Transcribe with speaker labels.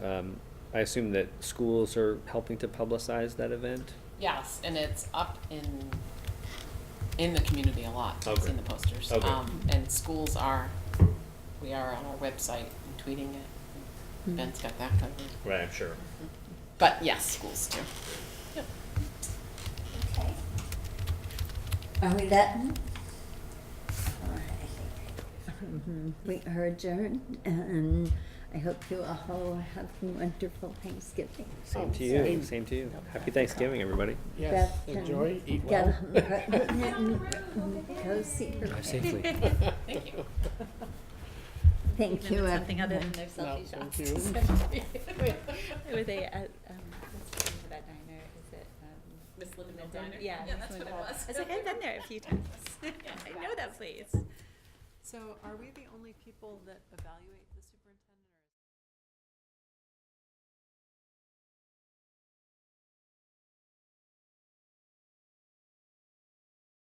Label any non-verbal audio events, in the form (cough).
Speaker 1: Um, I assume that schools are helping to publicize that event?
Speaker 2: Yes, and it's up in, in the community a lot, it's
Speaker 1: Okay.
Speaker 2: in the posters.
Speaker 1: Okay.
Speaker 2: Um, And schools are, we are on our website and tweeting it, Ben's got that covered.
Speaker 1: Right, I'm sure.
Speaker 2: But yes, schools too. Yep.
Speaker 3: Okay. Are we done? All right. We are adjourned and I hope you all have a wonderful Thanksgiving.
Speaker 1: Same to you, same to you. Happy Thanksgiving, everybody.
Speaker 4: Yes,
Speaker 3: Beth, um,
Speaker 4: enjoy, eat
Speaker 3: Get (laughs)
Speaker 4: well.
Speaker 3: home,
Speaker 5: (laughs)
Speaker 6: (laughs)
Speaker 3: go see your
Speaker 1: Drive
Speaker 3: kid. (laughs)
Speaker 1: safely.
Speaker 2: Thank
Speaker 5: (laughs)
Speaker 2: you.
Speaker 3: Thank you.
Speaker 6: Something other than
Speaker 3: everyone.
Speaker 6: their
Speaker 4: No,
Speaker 6: selfie
Speaker 4: thank
Speaker 6: shots.
Speaker 4: you.
Speaker 6: (laughs) Were they at, um, what's the name of that diner? Is it, um?
Speaker 2: Miss Livermore
Speaker 6: Linden?
Speaker 2: Diner?
Speaker 6: Yeah.
Speaker 2: Yeah,
Speaker 6: Miss
Speaker 2: that's what it
Speaker 6: Linden.
Speaker 2: was.
Speaker 6: I was like, I've been there a few times. I know that place.
Speaker 5: So are we the only people that evaluate